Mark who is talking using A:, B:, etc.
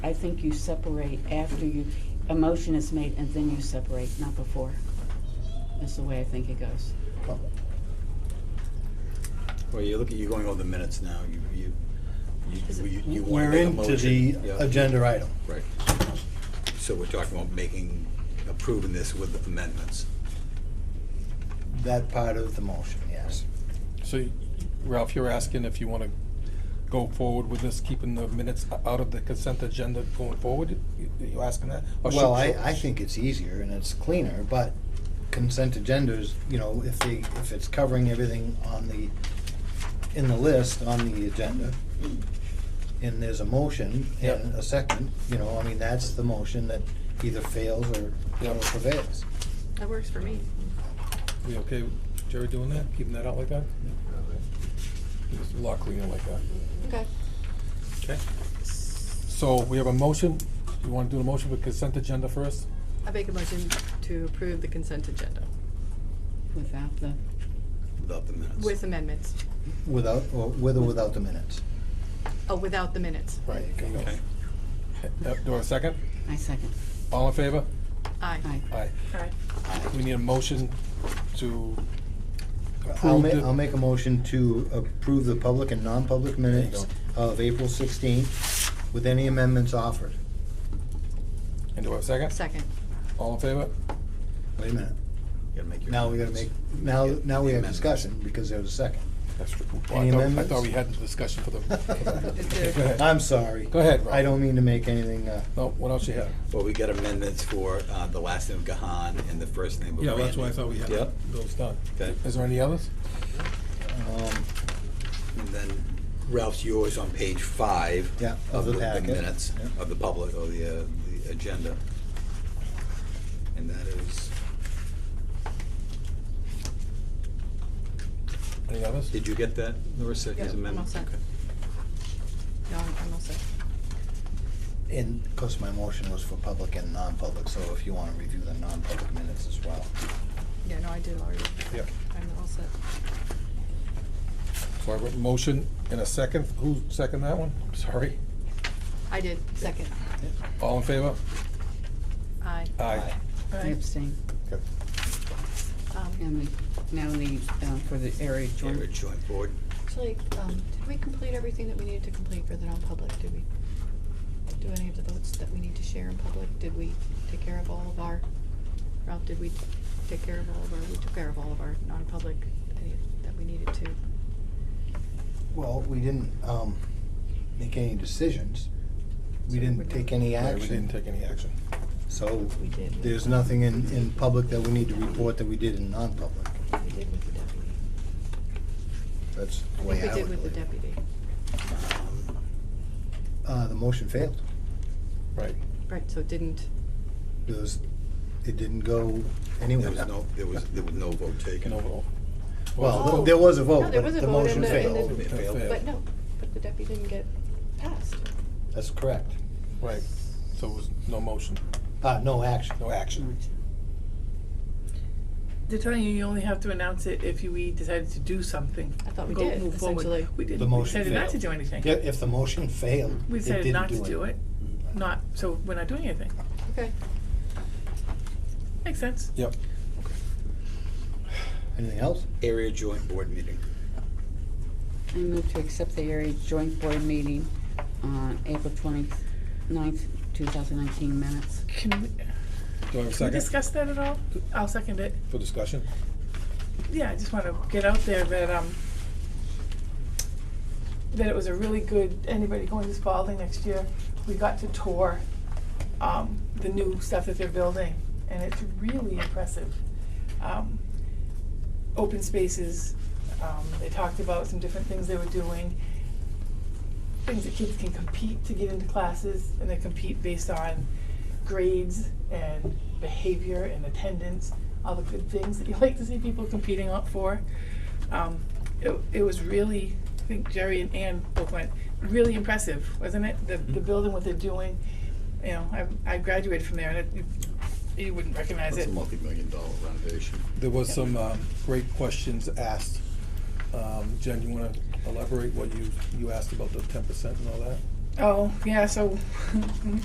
A: I think you separate after you, a motion is made and then you separate, not before. That's the way I think it goes.
B: Well, you look at, you're going over the minutes now, you, you, you, you- you want
C: We're
B: to make a
C: into the
B: motion. Yeah.
C: agenda item.
B: Right. So we're talking about making, approving this with amendments.
C: That part of the motion, yes.
D: So Ralph, you're asking if you want to go forward with this, keeping the minutes out of the consent agenda going forward? You- You asking that?
B: Oh,
D: Or should-
C: Well, I, I think it's easier and it's cleaner, but consent agendas, you know, if they, if it's covering everything on the, in the list, on the agenda, and there's a motion and
D: Yep.
C: a second, you know, I mean, that's the motion that either fails or or
D: Yep.
C: prevails.
E: That works for me.
D: We okay, with Jerry, doing that, keeping that out like that? It's a lot cleaner like that.
E: Okay.
D: Okay. So we have a motion. You want to do the motion with consent agenda first?
E: I make a motion to approve the consent agenda
A: Without the,
B: Without the minutes.
E: with amendments,
C: Without, or with or without the minutes.
E: oh, without the minutes.
C: Right.
B: Okay.
D: Uh, Do a second?
A: I second.
D: All in favor?
E: Aye.
A: Aye.
D: Aye.
E: Aye.
D: We need a motion to
C: I'll
D: approve
C: ma-
D: the-
C: I'll make a motion to approve the public and non-public
D: you
C: minutes of April sixteenth with any amendments offered.
D: And do a second?
E: Second.
D: All in favor?
C: Wait a minute.
B: Gotta make your
C: Now we gotta make,
B: amendments.
C: now, now we have
B: Amendments.
C: discussion because there was a second.
D: That's true. Well,
C: Any
D: I thought- I
C: amendments?
D: thought we had the discussion for the.
E: It's
D: Go
E: a-
D: ahead.
C: I'm sorry.
D: Go ahead, Rob.
C: I don't mean to make anything, uh,
D: No, what else you have?
B: Well, we got amendments for, uh, the last name of Gahan and the first name of
D: Yeah, that's why I
B: Randy.
D: thought we had
B: Yep,
D: those done.
B: okay.
D: Is there any others?
C: um,
B: And then Ralph's yours on page five.
C: Yeah, of the packet.
B: minutes
C: Yeah.
B: of the public, or the, uh, the agenda. And that is,
D: Any others?
B: did you get that, Larissa,
E: Yeah,
B: his
E: I'm all
B: amendment?
E: set.
B: Okay.
E: No, I'm I'm all set.
C: and, of course, my motion was for public and non-public, so if you wanna review the non-public minutes as well.
E: Yeah, no, I did already.
D: Yeah.
E: I'm all set.
D: So I wrote motion in a second. Who second that one? Sorry.
E: I did, second.
D: All in favor?
E: Aye.
D: Aye.
A: I abstain.
D: Okay.
E: Um,
A: And the, now the, uh, for the area
B: Yeah,
A: joint.
B: we're joint board.
E: Actually, um, did we complete everything that we needed to complete for the non-public? Did we do any of the votes that we need to share in public? Did we take care of all of our, Ralph, did we take care of all of our, we took care of all of our non-public any- that we needed to?
C: Well, we didn't, um, make any decisions. We didn't take any
D: Right, We didn't
C: action,
D: take any action.
C: so
E: We did.
C: there's nothing in, in public that we need to report that we did in non-public.
E: We did with the deputy.
C: That's the
E: I
C: way
E: think
C: I
E: we
C: would
E: did with the
C: believe it.
E: deputy.
B: Um,
C: Uh, the motion failed.
D: Right.
E: Right, so it didn't,
C: It was, it didn't go anywhere.
B: There was no, there was, there was no vote taken.
D: Can overall.
C: Well,
E: Oh.
C: there was a
E: No,
C: vote,
E: there
C: but
E: was a
C: the
E: vote
C: motion
E: in the- in
C: failed.
B: It failed.
D: Yeah.
E: but no, but the deputy didn't get passed.
C: That's correct.
D: Right. So it was no motion,
C: Uh, no action.
D: no action.
F: They're telling you you only have to announce it if you, we decided to do something.
E: I thought we
F: Go-
E: did,
F: move forward.
E: essentially.
F: We
C: The
F: didn't, we
C: motion
F: decided not to
C: failed.
F: do anything.
C: Yeah, if the motion failed,
F: We
C: it didn't
F: decided
C: do
F: not to do it, not, so we're not doing anything.
E: Okay.
F: Makes sense.
D: Yep.
C: Anything else?
B: Area joint board meeting.
A: I move to accept the area joint board meeting on April twenty-ninth, two thousand nineteen minutes.
F: Can we,
D: Do I have a
F: can we
D: second
F: discuss that at all? I'll second it.
D: for discussion?
F: Yeah, I just wanna get out there that, um, that it was a really good, anybody going to Spalding next year, we got to tour, um, the new stuff that they're building, and it's really impressive. Um, open spaces, um, they talked about some different things they were doing, things that kids can compete to get into classes, and they compete based on grades and behavior and attendance, all the good things that you like to see people competing up for. Um, it, it was really, I think Jerry and Ann both went, really impressive, wasn't it? The,
B: Mm-hmm.
F: the building, what they're doing, you know, I, I graduated from there, and it, you, you wouldn't recognize
B: That's
F: it.
B: a multi-million dollar renovation.
D: There was some um, great questions asked. Um, Jen, you want to elaborate what you, you asked about the ten percent and all that?
F: Oh, yeah, so